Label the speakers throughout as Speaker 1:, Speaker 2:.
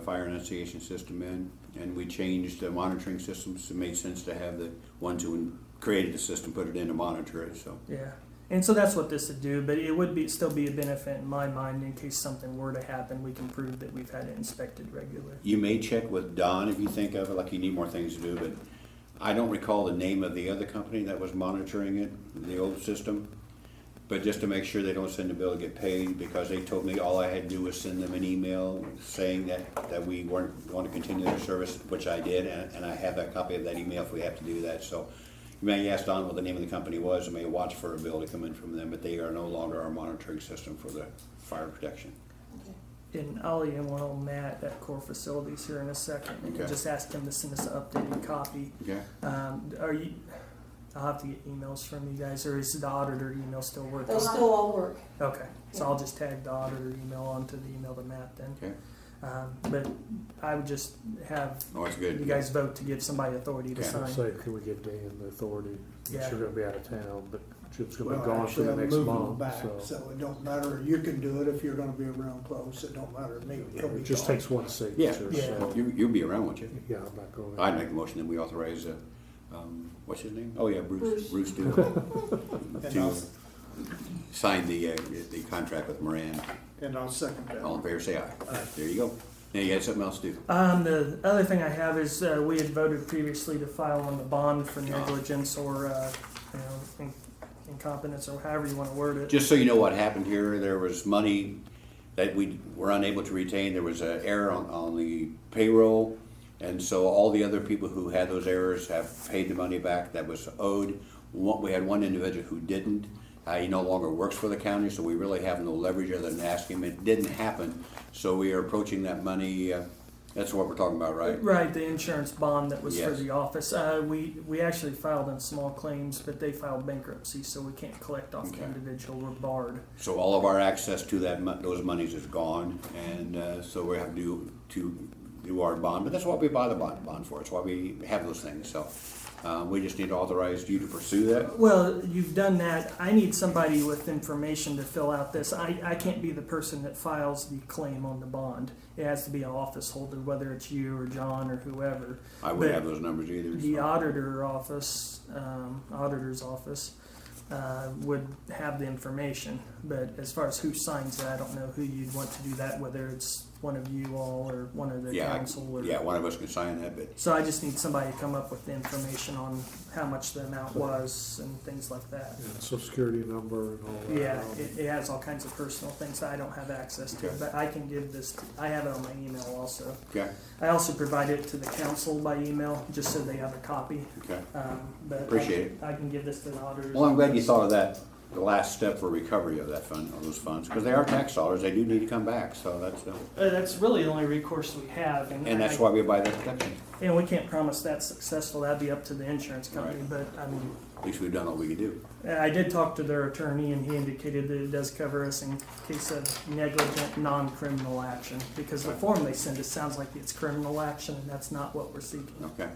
Speaker 1: fire enunciation system in, and we changed the monitoring systems. It made sense to have the ones who created the system put it in to monitor it, so.
Speaker 2: Yeah. And so that's what this would do, but it would be still be a benefit in my mind in case something were to happen, we can prove that we've had it inspected regularly.
Speaker 1: You may check with Don if you think of it, like you need more things to do, but I don't recall the name of the other company that was monitoring it, the old system. But just to make sure they don't send a bill to get paid, because they told me all I had to do was send them an email saying that, that we weren't going to continue their service, which I did, and, and I have a copy of that email if we have to do that, so. You may ask Don what the name of the company was, and may watch for a bill to come in from them, but they are no longer our monitoring system for the fire protection.
Speaker 2: And I'll email Matt at Core Facilities here in a second, and
Speaker 1: Okay.
Speaker 2: just ask him to send us an updated copy.
Speaker 1: Okay.
Speaker 2: Um, are you, I'll have to get emails from you guys, or is the auditor email still working?
Speaker 3: They'll still all work.
Speaker 2: Okay, so I'll just tag the auditor email onto the email to Matt then.
Speaker 1: Okay.
Speaker 2: Um, but I would just have
Speaker 1: Oh, that's
Speaker 2: you
Speaker 1: good.
Speaker 2: guys vote to give somebody authority to
Speaker 1: Okay.
Speaker 2: sign.
Speaker 4: Say, can we give Dan the authority?
Speaker 2: Yeah.
Speaker 4: She's gonna be out of town, but Chip's gonna be
Speaker 5: Well,
Speaker 4: gone for
Speaker 5: actually,
Speaker 4: the
Speaker 5: I'm
Speaker 4: next
Speaker 5: moving
Speaker 4: month,
Speaker 5: them back,
Speaker 4: so.
Speaker 5: So it don't matter, you can do it if you're gonna be around close, it don't matter to me. It'll be
Speaker 4: It just
Speaker 5: gone.
Speaker 4: takes one signature,
Speaker 2: Yeah.
Speaker 4: so,
Speaker 1: You, you'll be around, won't you?
Speaker 4: yeah, I'm not going.
Speaker 1: I'd make a motion that we authorize, uh, um, what's his name? Oh, yeah, Bruce, Bruce
Speaker 3: Bruce.
Speaker 1: Doolittle.
Speaker 5: And
Speaker 1: To
Speaker 5: I'll-
Speaker 1: sign the, uh, the contract with Moran.
Speaker 5: And I'll second
Speaker 1: All
Speaker 5: that.
Speaker 1: in favor, say aye. There you go. Now you got something else to do.
Speaker 2: Um, the other thing I have is, uh, we had voted previously to file on the bond for negligence or, uh, you know, in- incompetence or however you wanna word it.
Speaker 1: Just so you know what happened here, there was money that we were unable to retain. There was an error on, on the payroll. And so all the other people who had those errors have paid the money back that was owed. One, we had one individual who didn't. Uh, he no longer works for the county, so we really have no leverage other than ask him. It didn't happen. So we are approaching that money. Uh, that's what we're talking about, right?
Speaker 2: Right, the insurance bond that was for
Speaker 1: Yes.
Speaker 2: the office. Uh, we, we actually filed on small claims, but they filed bankruptcy, so we can't collect off the
Speaker 1: Okay.
Speaker 2: individual, we're barred.
Speaker 1: So all of our access to that, mon- those monies is gone, and uh, so we have to, to do our bond, but that's what we buy the bond, bond for, it's why we have those things, so. uh, We just need to authorize you to pursue that.
Speaker 2: Well, you've done that. I need somebody with information to fill out this. I, I can't be the person that files the claim on the bond. It has to be an office holder, whether it's you or John or whoever.
Speaker 1: I wouldn't
Speaker 2: But
Speaker 1: have those numbers either.
Speaker 2: The
Speaker 1: so.
Speaker 2: auditor office, um, auditor's office, uh, would have the information. But as far as who signs it, I don't know who you'd want to do that, whether it's one of you all or one of the
Speaker 1: Yeah, I-
Speaker 2: council or.
Speaker 1: Yeah, one of us can sign that, but
Speaker 2: So I just need somebody to come up with the information on how much the amount was and things like that.
Speaker 4: Yeah, Social security number and all that.
Speaker 2: Yeah,
Speaker 4: Um,
Speaker 2: it, it has all kinds of personal things that I don't have access to,
Speaker 1: Okay.
Speaker 2: but I can give this, to- I have it on my email also.
Speaker 1: Okay,
Speaker 2: I also provide it to the council by email, just so they have a copy.
Speaker 1: okay.
Speaker 2: Um, but I-
Speaker 1: Appreciate
Speaker 2: I can give this to the auditors.
Speaker 1: Well, I'm glad you thought of that, the last step for recovery of that fund, of those funds, because they are tax dollars, they do need to come back, so that's, uh,
Speaker 2: Uh, that's really the only recourse we have, and.
Speaker 1: and that's
Speaker 2: I-
Speaker 1: why we buy that protection.
Speaker 2: And we can't promise that's successful, that'd be up to the insurance company,
Speaker 1: Right.
Speaker 2: but I mean,
Speaker 1: At least we've done all we could do.
Speaker 2: I did talk to their attorney and he indicated that it does cover us in case of negligent, non-criminal action. Because the form they send us sounds like it's criminal action and that's not what we're seeking.
Speaker 1: Okay,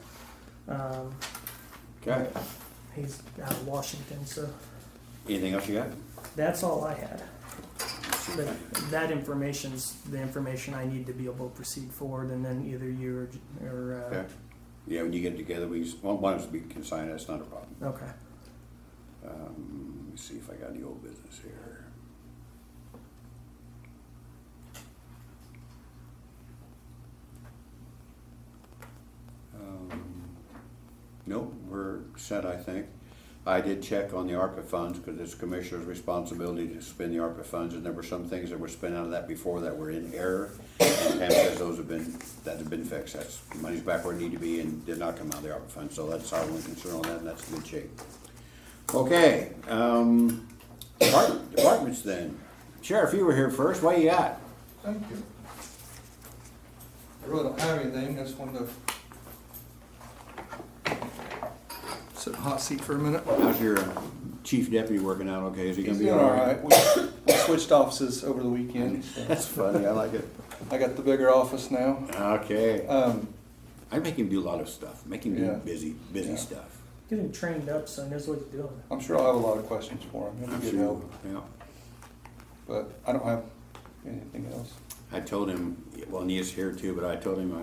Speaker 2: Um,
Speaker 1: okay.
Speaker 2: he's out of Washington, so
Speaker 1: Anything else you got?
Speaker 2: that's all I had. But that information's the information I need to be able to proceed forward, and then either you or, uh,
Speaker 1: Okay.
Speaker 2: or
Speaker 1: Yeah, when you get together, we, well, one of us we can sign, that's not a problem.
Speaker 2: uh, okay.
Speaker 1: Um, let me see if I got any old business here. Um, Nope, we're set, I think. I did check on the ARPA funds, because it's commissioner's responsibility to spend the ARPA funds, and there were some things that were spent out of that before that were in error. And Pam says those have been, that have been fixed, that's, the money's back where it need to be and did not come out of the ARPA fund, so that's our only concern on that, and that's in good shape. Okay, um, depart- departments then. Sheriff, you were here first, what you got?
Speaker 6: Thank you. I really don't have anything, I just wanted to sit in the hot seat for a minute.
Speaker 1: How's your uh, chief deputy working out, okay, is he gonna be
Speaker 6: He's doing
Speaker 1: all right?
Speaker 6: We we switched offices over the weekend. so
Speaker 1: That's funny, I like it.
Speaker 6: I got the bigger office now.
Speaker 1: Okay,
Speaker 6: Um,
Speaker 1: I make him do a lot of stuff, make him do
Speaker 6: Yeah.
Speaker 1: busy, busy
Speaker 6: Yeah.
Speaker 1: stuff.
Speaker 2: Get him trained up so he knows what he's doing.
Speaker 6: I'm sure I'll have a lot of questions for him, he'll be good help,
Speaker 1: Yeah.
Speaker 6: but I don't have anything else.
Speaker 1: I told him, well, Nia's here too, but I told him I